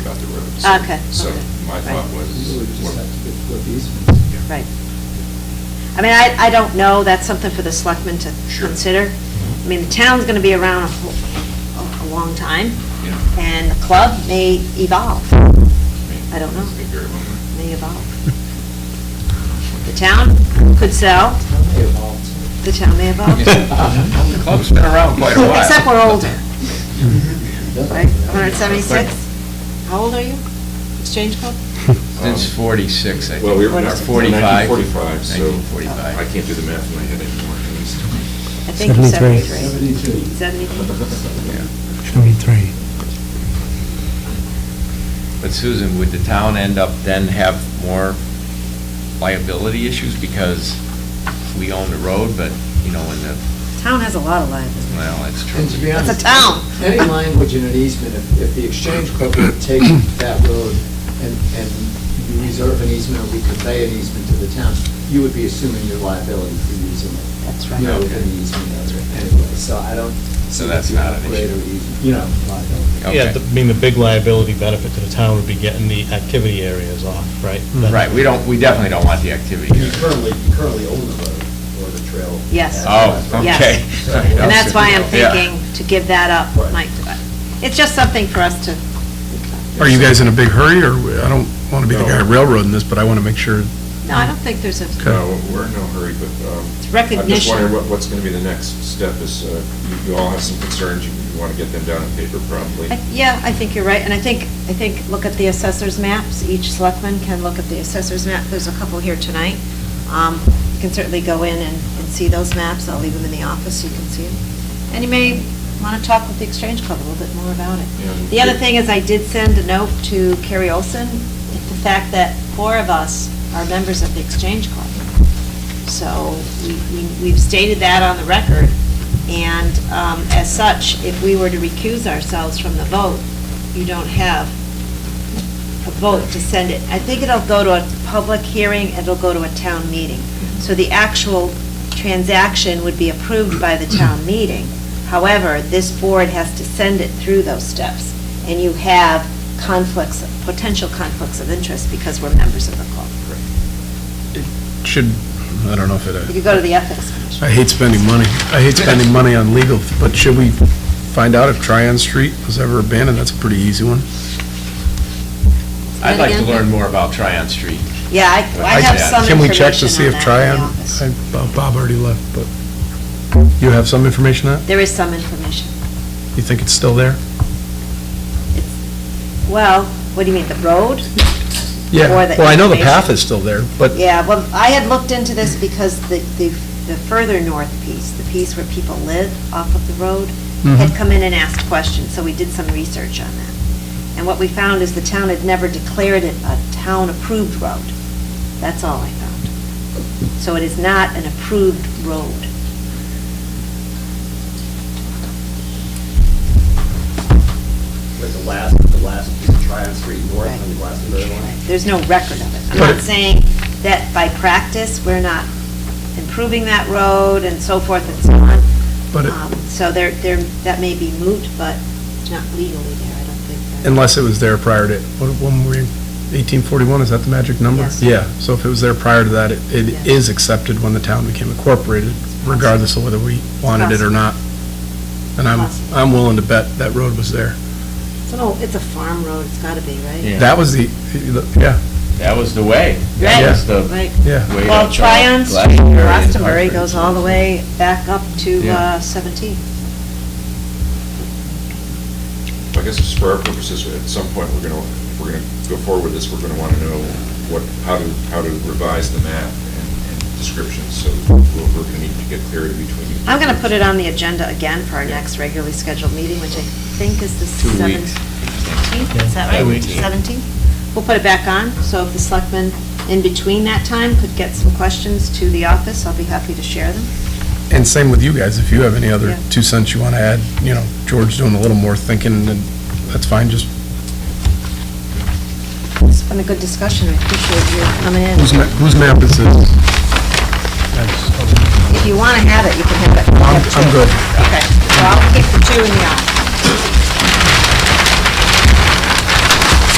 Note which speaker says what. Speaker 1: about the roads.
Speaker 2: Okay,
Speaker 1: So
Speaker 2: okay,
Speaker 1: my thought
Speaker 2: right.
Speaker 1: was,
Speaker 3: You would just have
Speaker 1: what-
Speaker 3: to get foot easements.
Speaker 1: yeah.
Speaker 2: Right. I mean, I, I don't know, that's something for the selectmen to
Speaker 1: Sure.
Speaker 2: consider. I mean, the town's gonna be around a, whole- a a long time,
Speaker 1: yeah.
Speaker 2: and the club may evolve, I don't know.
Speaker 1: It's been very long.
Speaker 2: may evolve. The town could sell,
Speaker 3: How many evolved?
Speaker 2: the town may evolve.
Speaker 1: The club's been around quite a while.
Speaker 2: Except we're older, right? 176? How old are you? Exchange Club?
Speaker 4: Since 46, I think.
Speaker 1: Um, Well, we were
Speaker 2: Or
Speaker 1: in our
Speaker 4: 45.
Speaker 1: 1945, so
Speaker 4: 1945.
Speaker 1: I can't do the math in my head anymore, at least.
Speaker 2: I think you're
Speaker 5: 73.
Speaker 2: 73.
Speaker 3: Seventy-two.
Speaker 2: 73?
Speaker 5: Seventy-three.
Speaker 4: But Susan, would the town end up then have more liability issues because we own the road, but, you know, in the,
Speaker 2: Town has a lot of liability.
Speaker 4: well, that's true.
Speaker 3: And to be honest.
Speaker 2: It's a town.
Speaker 3: Any language in an easement, if, if the Exchange Club would take that road and, and you reserve an easement, or we convey an easement to the town, you would be assuming your liability for using it.
Speaker 2: That's
Speaker 3: You
Speaker 2: right.
Speaker 3: know, with an easement, that's right, anyway, so I don't.
Speaker 4: So
Speaker 3: see
Speaker 4: that's
Speaker 3: that you
Speaker 4: not an
Speaker 3: have Greater
Speaker 4: issue.
Speaker 3: easement, you know, liability.
Speaker 4: Okay.
Speaker 6: Yeah, the- I mean, the big liability benefit to the town would be getting the activity areas off, right? That-
Speaker 4: Right, we don't, we definitely don't want the activity.
Speaker 7: You currently, you currently own the road or the trail.
Speaker 2: Yes.
Speaker 4: Oh, okay.
Speaker 2: Yes. And that's why I'm
Speaker 4: Yeah.
Speaker 2: thinking to give that up,
Speaker 7: Right.
Speaker 2: Mike. It's just something for us to,
Speaker 5: Are you guys in a big hurry, or, I don't want to be the guy
Speaker 1: No.
Speaker 5: railroading this, but I want to make sure.
Speaker 2: no, I don't think there's a,
Speaker 1: No, we're in no hurry, but um,
Speaker 2: It's
Speaker 1: I'm just
Speaker 2: recognition.
Speaker 1: wondering what- what's going to be the next step is, uh, you- you all have some concerns, you want to get them down on paper probably.
Speaker 2: I- yeah, I think you're right, and I think, I think, look at the assessor's maps, each selectman can look at the assessor's map, there's a couple here tonight. Um, You can certainly go in and, and see those maps, I'll leave them in the office, so you can see them. And you may want to talk with the Exchange Club a little bit more about it.
Speaker 1: Yeah.
Speaker 2: The other thing is, I did send a note to Carrie Olson, the fact that four of us are members of the Exchange Club. So we- we- we've stated that on the record, and um, as such, if we were to recuse ourselves from the vote, you don't have a vote to send it. I think it'll go to a public hearing, it'll go to a town meeting. So the actual transaction would be approved by the town meeting. However, this board has to send it through those steps, and you have conflicts, potential conflicts of interest because we're members of the club.
Speaker 5: Should, I don't know if
Speaker 2: You
Speaker 5: it,
Speaker 2: could go to the ethics commission.
Speaker 5: I hate spending money. I hate spending money on legal, but should we find out if Tryon Street was ever abandoned? That's a pretty easy one.
Speaker 4: I'd like to
Speaker 2: Again?
Speaker 4: learn more about Tryon Street.
Speaker 2: Yeah, I I have some
Speaker 5: Can we check
Speaker 2: information
Speaker 5: to see
Speaker 2: on
Speaker 5: if
Speaker 2: that in
Speaker 5: Tryon,
Speaker 2: the office.
Speaker 5: I- Bob- Bob already left, but you have some information on it?
Speaker 2: There is some information.
Speaker 5: You think it's still there?
Speaker 2: Well, what do you mean, the road?
Speaker 5: Yeah,
Speaker 2: Or the
Speaker 5: well, I know the path
Speaker 2: information.
Speaker 5: is still there, but
Speaker 2: Yeah, well, I had looked into this because the, the the further north piece, the piece where people live off of the road, had
Speaker 5: Mhm.
Speaker 2: come in and asked questions, so we did some research on that. And what we found is the town had never declared it a town-approved road. That's all I found. So it is not an approved road.
Speaker 7: Like the last, the last Tryon Street north
Speaker 2: Right.
Speaker 7: on Glastonbury line.
Speaker 2: There's no record of it. I'm
Speaker 5: But
Speaker 2: not
Speaker 5: it-
Speaker 2: saying that by practice, we're not improving that road and so forth and so on.
Speaker 5: But it-
Speaker 2: Um, So there, there, that may be moot, but it's not legally there, I don't think.
Speaker 5: Unless it was there prior to, what, when were you, 1841, is that the magic number?
Speaker 2: Yes.
Speaker 5: Yeah, so if it was there prior to that, it,
Speaker 2: Yes.
Speaker 5: it is accepted when the town became incorporated, regardless of whether we wanted it or not. And I'm,
Speaker 2: Possible.
Speaker 5: I'm willing to bet that road was there.
Speaker 2: It's an old, it's a farm road, it's gotta be, right?
Speaker 4: Yeah.
Speaker 5: That was the, yeah,
Speaker 4: That was the way.
Speaker 2: Right,
Speaker 4: That was the
Speaker 2: Right.
Speaker 5: yeah.
Speaker 4: way to
Speaker 2: Well, Tryon Street,
Speaker 4: Glastonbury and
Speaker 2: Glastonbury
Speaker 4: Hartford.
Speaker 2: goes all the way back up to
Speaker 4: Yeah.
Speaker 2: uh, 17.
Speaker 1: I guess just for our purposes, at some point, we're going to, if we're going to go forward with this, we're going to want to know what, how to, how to revise the map and and descriptions, so we'll- we're going to need to get clarity between you.
Speaker 2: I'm gonna put it on the agenda again for our next regularly scheduled meeting, which I think is the
Speaker 4: Two weeks.
Speaker 2: 17th, is that
Speaker 4: Yeah,
Speaker 2: right?
Speaker 4: two weeks.
Speaker 2: 17th? We'll put it back on, so if the selectmen in between that time could get some questions to the office, I'll be happy to share them.
Speaker 5: And same with you guys, if you have any
Speaker 2: Yeah.
Speaker 5: other two cents you want to add, you know, George doing a little more thinking, and that's fine, just,
Speaker 2: It's been a good discussion, I appreciate you coming in.
Speaker 5: whose ma- whose map is this?
Speaker 2: If you wanna have it, you can have it.
Speaker 5: I'm I'm good.
Speaker 2: Okay, so I'll keep the two in the office.